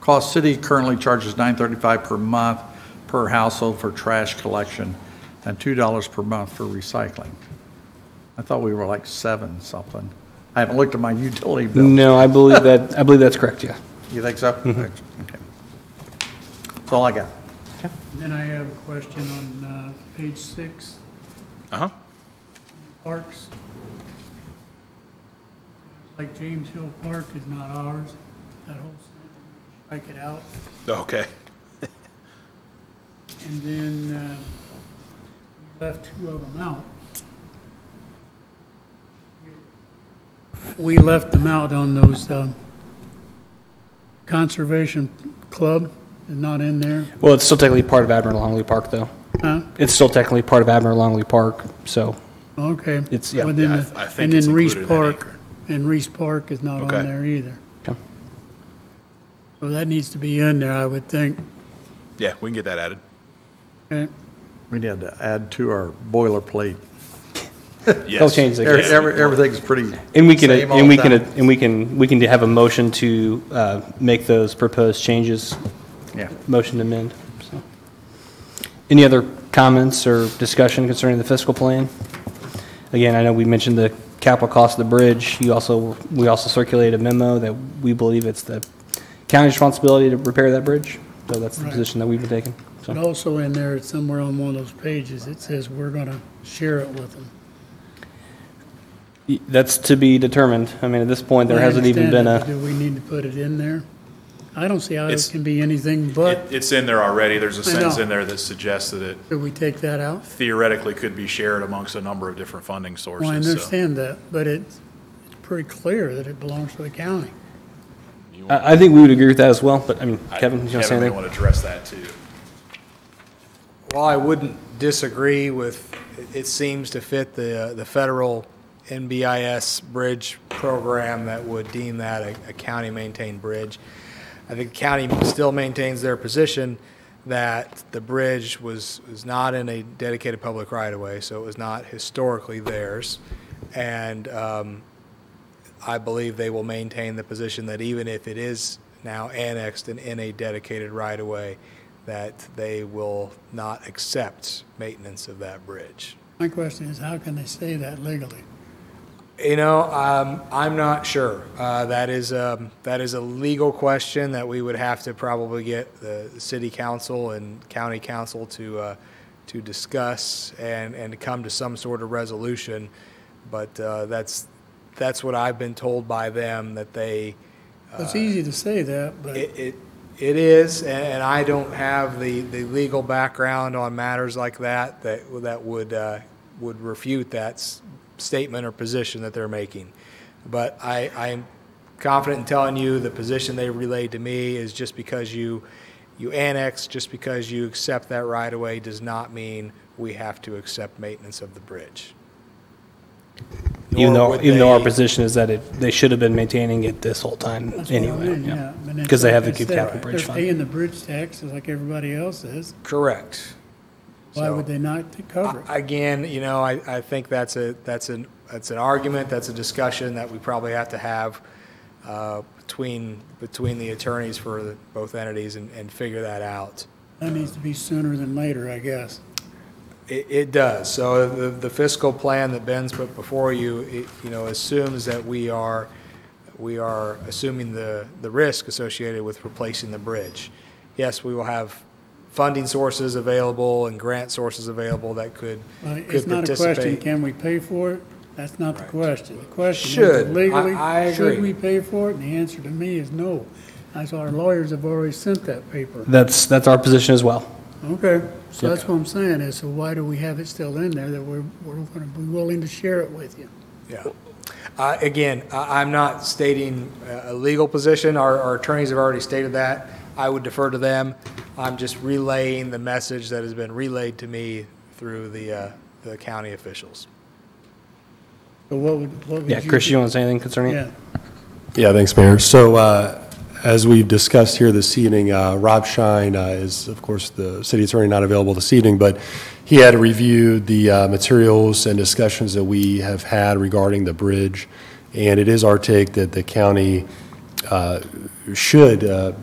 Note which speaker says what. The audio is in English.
Speaker 1: Cost City currently charges $9.35 per month per household for trash collection and $2 per month for recycling. I thought we were like seven something. I haven't looked at my utility bill.
Speaker 2: No, Mm-hmm. I believe that, I believe that's correct, yeah.
Speaker 1: You think so? Okay. That's all I got.
Speaker 3: Then I have a question on uh, page six,
Speaker 4: Uh-huh.
Speaker 3: parks. Like James Hill Park is not ours, that whole, strike it out.
Speaker 4: Oh, Okay.
Speaker 3: And then uh, we left two of them out. We left them out on those um, conservation club, they're not in there.
Speaker 2: Well, it's still technically part of Admiral Longley Park, though.
Speaker 3: Huh?
Speaker 2: It's still technically part of Admiral Longley Park, so,
Speaker 3: Okay.
Speaker 2: It's- yeah,
Speaker 3: Well, then
Speaker 4: yeah, I
Speaker 3: the-
Speaker 4: th- I think
Speaker 3: And
Speaker 4: it's
Speaker 3: then Reese
Speaker 4: included in that
Speaker 3: Park, and Reese Park is not on
Speaker 4: Okay.
Speaker 3: there either.
Speaker 2: okay.
Speaker 3: So that needs to be in there, I would think.
Speaker 4: Yeah, we can get that added.
Speaker 3: Okay.
Speaker 1: We need to add to our boilerplate.
Speaker 2: they'll
Speaker 4: Yes.
Speaker 2: change the
Speaker 1: Every- every- Everything's pretty.
Speaker 2: And we can,
Speaker 1: same all
Speaker 2: and we
Speaker 1: the
Speaker 2: can,
Speaker 1: time.
Speaker 2: and we can, we can have a motion to uh, make those proposed changes,
Speaker 1: Yeah.
Speaker 2: motion to amend. so. Any other comments or discussion concerning the fiscal plan? Again, I know we mentioned the capital cost of the bridge. You also, we also circulated a memo that we believe it's the county's responsibility to repair that bridge. So that's the
Speaker 3: Right.
Speaker 2: position that we've been taking.
Speaker 3: But
Speaker 2: So,
Speaker 3: also in there, somewhere on one of those pages, it says we're going to share it with them.
Speaker 2: y- that's to be determined. I mean, at this point, there
Speaker 3: I
Speaker 2: hasn't even been
Speaker 3: understand
Speaker 2: a.
Speaker 3: it, but Do we need to put it in there? I don't see how it
Speaker 4: It's-
Speaker 3: can be anything
Speaker 4: It,
Speaker 3: but,
Speaker 4: it's in there already. There's a
Speaker 3: I know.
Speaker 4: sentence in there that suggests that it
Speaker 3: do we take that out?
Speaker 4: theoretically could be shared amongst a number of different funding sources.
Speaker 3: Well, I
Speaker 4: so-
Speaker 3: understand that, but it's it's pretty clear that it belongs to the county.
Speaker 2: I, I think we would agree with that as well, but I mean,
Speaker 4: I-
Speaker 2: Kevin, you want to say
Speaker 4: Kevin may
Speaker 2: anything?
Speaker 4: want to address that too.
Speaker 5: While I wouldn't disagree with, it seems to fit the, the federal NBIS bridge program that would deem that a, a county-maintained bridge. I think the county still maintains their position that the bridge was, was not in a dedicated public right-of-way, so it was not historically theirs. And, um, I believe they will maintain the position that even if it is now annexed and in a dedicated right-of-way, that they will not accept maintenance of that bridge.
Speaker 3: My question is, how can they say that legally?
Speaker 5: You know, um, I'm not sure. Uh, that is, um, that is a legal question that we would have to probably get the city council and county council to, uh, to discuss and, and to come to some sort of resolution. But, uh, that's, that's what I've been told by them, that they,
Speaker 4: Uh,
Speaker 3: It's easy to say that, but.
Speaker 5: It, it- it is, and- and I don't have the, the legal background on matters like that that, that would, uh, would refute that s- statement or position that they're making. But I, I'm confident in telling you the position they relayed to me is just because you, you annex, just because you accept that right away does not mean we have to accept maintenance of the bridge.
Speaker 2: Even
Speaker 5: Nor
Speaker 2: though,
Speaker 5: would
Speaker 2: even though our
Speaker 5: they-
Speaker 2: position is that it, they should have been maintaining it this whole time
Speaker 3: That's what I
Speaker 2: anyway.
Speaker 3: mean,
Speaker 2: yeah.
Speaker 3: but that's
Speaker 2: 'Cause they
Speaker 3: like
Speaker 2: have the
Speaker 3: I
Speaker 2: Cube
Speaker 3: said,
Speaker 2: Capital Bridge Fund.
Speaker 3: They're paying the bridge taxes like everybody else is.
Speaker 5: Correct.
Speaker 3: Why
Speaker 5: So-
Speaker 3: would they not to cover it?
Speaker 5: Again, you know, I, I think that's a, that's an, that's an argument, that's a discussion that we probably have to have uh, between, between the attorneys for the- both entities and, and figure that out.
Speaker 3: That needs to be sooner than later, I guess.
Speaker 5: It, it does. So the the fiscal plan that Ben's put before you, it, you know, assumes that we are, we are assuming the, the risk associated with replacing the bridge. Yes, we will have funding sources available and grant sources available that could,
Speaker 3: Uh,
Speaker 5: could
Speaker 3: It's not a question,
Speaker 5: participate.
Speaker 3: can we pay for it? That's not the question. The question
Speaker 5: Should.
Speaker 3: is legally,
Speaker 5: I- I
Speaker 3: should we
Speaker 5: agree.
Speaker 3: pay for it? And the answer to me is no. That's why our lawyers have already sent that paper.
Speaker 2: That's, that's our position as well.
Speaker 3: Okay, so that's what I'm saying is, so why do we have it still in there that we're, we're going to be willing to share it with you?
Speaker 5: Yeah. Uh, Again, I- I'm not stating a a legal position. Our our attorneys have already stated that. I would defer to them. I'm just relaying the message that has been relayed to me through the uh, the county officials.
Speaker 3: So what would, what would you?
Speaker 2: Yeah, Chris,
Speaker 3: do?
Speaker 2: you want to say anything concerning it?
Speaker 3: Yeah,
Speaker 6: Yeah, thanks, Mayor. So uh, as we've discussed here this evening, uh, Rob Shine uh, is, of course, the city attorney not available this evening, but he had reviewed the uh, materials and discussions that we have had regarding the bridge, and it is our take that the county uh, should uh,